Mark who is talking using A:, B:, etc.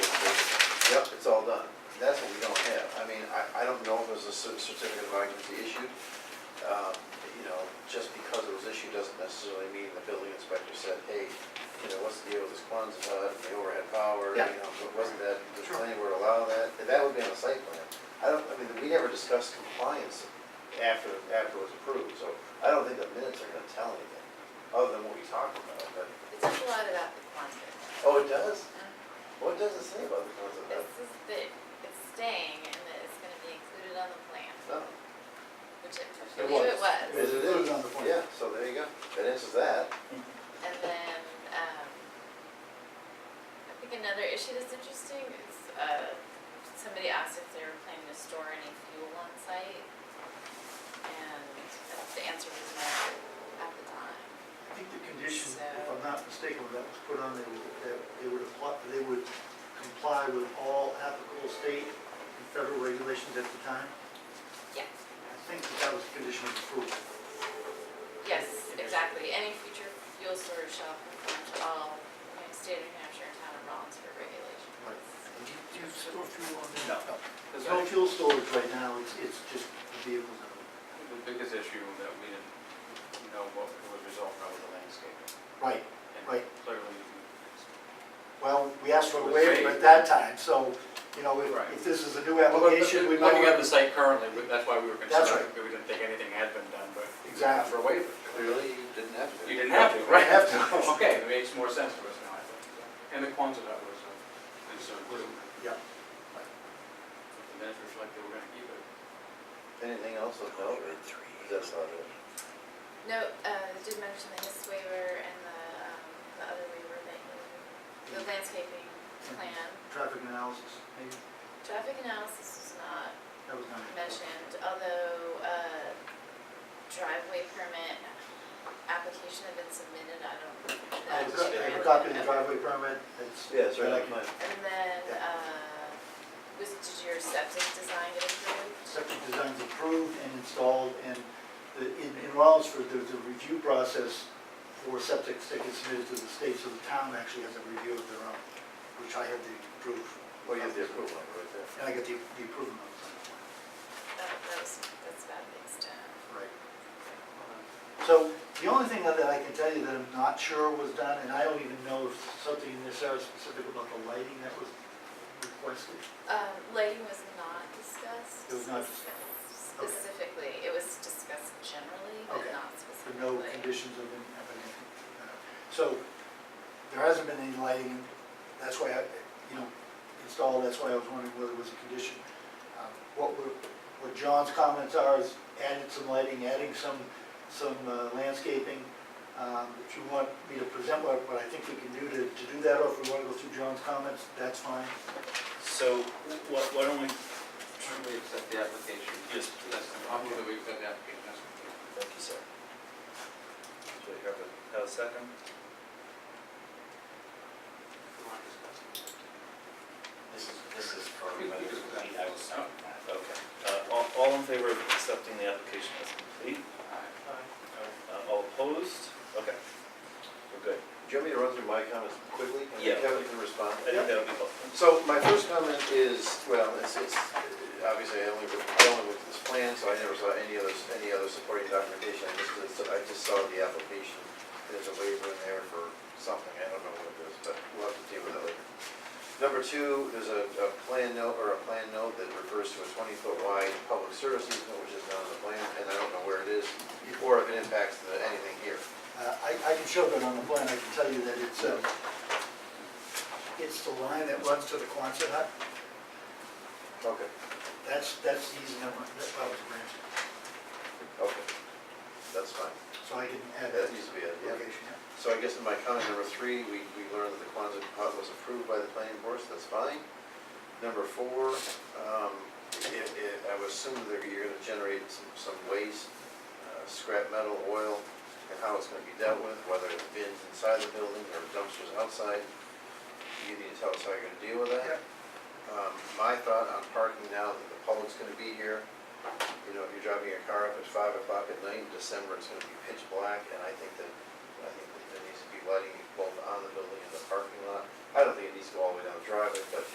A: well done. That's what we don't have. I mean, I, I don't know if there's a cer- certificate of occupancy issued. Um, You know, just because it was issued doesn't necessarily mean the building inspector said, hey, you know, what's the deal with this Quonset hut, and the overhead power?
B: Yeah.
A: You know, but wasn't that, the
B: Sure.
A: planning board allow that? That would be on the site plan. I don't, I mean, we never discussed compliance after, after it was approved, so I don't think the minutes are gonna tell anything, other than what we talked about, but,
C: It says a lot about the Quonset.
A: oh, it does?
C: It
A: What does it say about the Quonset hut?
C: says that it's staying and that it's gonna be included on the plan,
A: No.
C: which I believe it was.
A: Is it
B: It
A: is?
B: was on the plan.
A: Yeah, so there you go. That answers that.
C: And then, um, I think another issue that's interesting is, uh, somebody asked if they were planning to store any fuel on site. And the answer was no at the time.
B: I think the condition, if I'm not mistaken, that was put on, there was that they would apply, they would comply with all applicable state and federal regulations at the time.
C: Yeah.
B: I think that that was a condition of approval.
C: Yes, exactly. Any future fuel storage shall conform to all you know, state of New Hampshire and town of Rollinsford regulations.
B: Do you store fuel on there? No. There's no fuel storage right now, it's, it's just the vehicles.
D: The biggest issue that we didn't know what would result from was the landscaping.
B: Right,
D: And
B: right.
D: Clearly,
B: Well, we asked for a
D: It was
B: waiver at
D: made.
B: that time, so, you know, if,
D: Right.
B: if this is a new application, we might.
D: looking at the site currently, we- that's why we were
B: That's
D: concerned, we didn't think anything had been done, but.
B: Exactly.
D: For a waiver.
A: Clearly, you didn't have to.
D: You didn't have to,
B: We
D: right?
B: have to.
D: Okay, it makes more sense to us now, I think. And the Quonset hut was uh, a concern too.
B: Yeah.
D: The minutes reflect that we're gonna keep it.
A: Anything else with no? That's about it.
C: No, uh, they did mention the HIS waiver and the, um, the other waiver that you, the landscaping plan.
B: Traffic analysis, maybe,
C: Traffic analysis was not
B: that was not.
C: mentioned, although, uh, driveway permit application had been submitted, I don't.
B: I have
C: that
B: a
C: was
B: copy- I have a
C: really-
B: copy of the driveway permit, it's.
A: Yeah, it's right
B: that
A: on
B: I can-
A: mine.
C: And then,
B: Yeah.
C: uh, was, did your septic design get approved?
B: Septic design's approved and installed, and the, in, in Rollinsford, there's a review process for septic that gets submitted to the state, so the town actually has a review of their own, which I have the approval.
A: Well, Oh, you have the approval right there.
B: And I get the, the approval notice.
C: That, that was, that's about the extent.
B: Right. So the only thing that I can tell you that I'm not sure was done, and I don't even know if something in this area specific about the lighting that was requested.
C: Um, lighting was not discussed.
B: It was not okay.
C: Specifically, it was discussed generally, but
B: Okay.
C: not
B: for
C: specifically.
B: no conditions of any, of any, uh, so there hasn't been any lighting, that's why I, you know, installed, that's why I was wondering whether it was a condition. Um, What were, what John's comments are is added some lighting, adding some, some uh, landscaping. Um, If you want me to present what, what I think we can do to, to do that, or if we wanna go through John's comments, that's fine.
E: So why why don't we,
D: Should we accept the application?
E: Yes.
D: That's, I'm going we accept the application, that's.
E: thank you, sir. Do we have a, have a second?
D: we want to discuss.
E: This is, this is probably my, I was, okay. Uh, All, all in favor of accepting the application as complete?
D: Alright.
E: Uh, All opposed? Okay, we're good.
A: Do you want me to run through my comments quickly? and then
E: Yeah.
A: Kevin can respond.
E: I think that'll be helpful.
A: So my first comment is, well, it's, it's, obviously I only, looked- I only looked at this plan, so I never saw any other, any other supporting documentation. I just, I just saw the application. There's a waiver in there for something, I don't know what it is, but we'll have to deal with that later. Number two, there's a, a plan note, or a plan note that refers to a twenty-foot wide public service easement, which is not on the plan, and I don't know where it is, or if it impacts the, anything here.
B: Uh, I, I can show that on the plan, I can tell you that it's, uh, it's the line that runs to the Quonset hut.
A: Okay.
B: That's, that's the easy number, that's probably the branch,
A: Okay, that's fine.
B: so I can add that
A: That needs to be it, yeah.
B: location. yeah.
A: So I guess in my comment number three, we, we learned that the Quonset hut was approved by the planning board, so that's fine. Number four, um, it, it, I would assume that you're gonna generate some, some waste, uh, scrap metal, oil, and how it's gonna be dealt with, whether it's bins inside the building or dumpsters outside. You need to tell us how you're gonna deal with that. Um, my thought on parking now that the public's gonna be here, you know, if you're driving your car up at five o'clock at night in December, it's gonna be pitch black, and I think that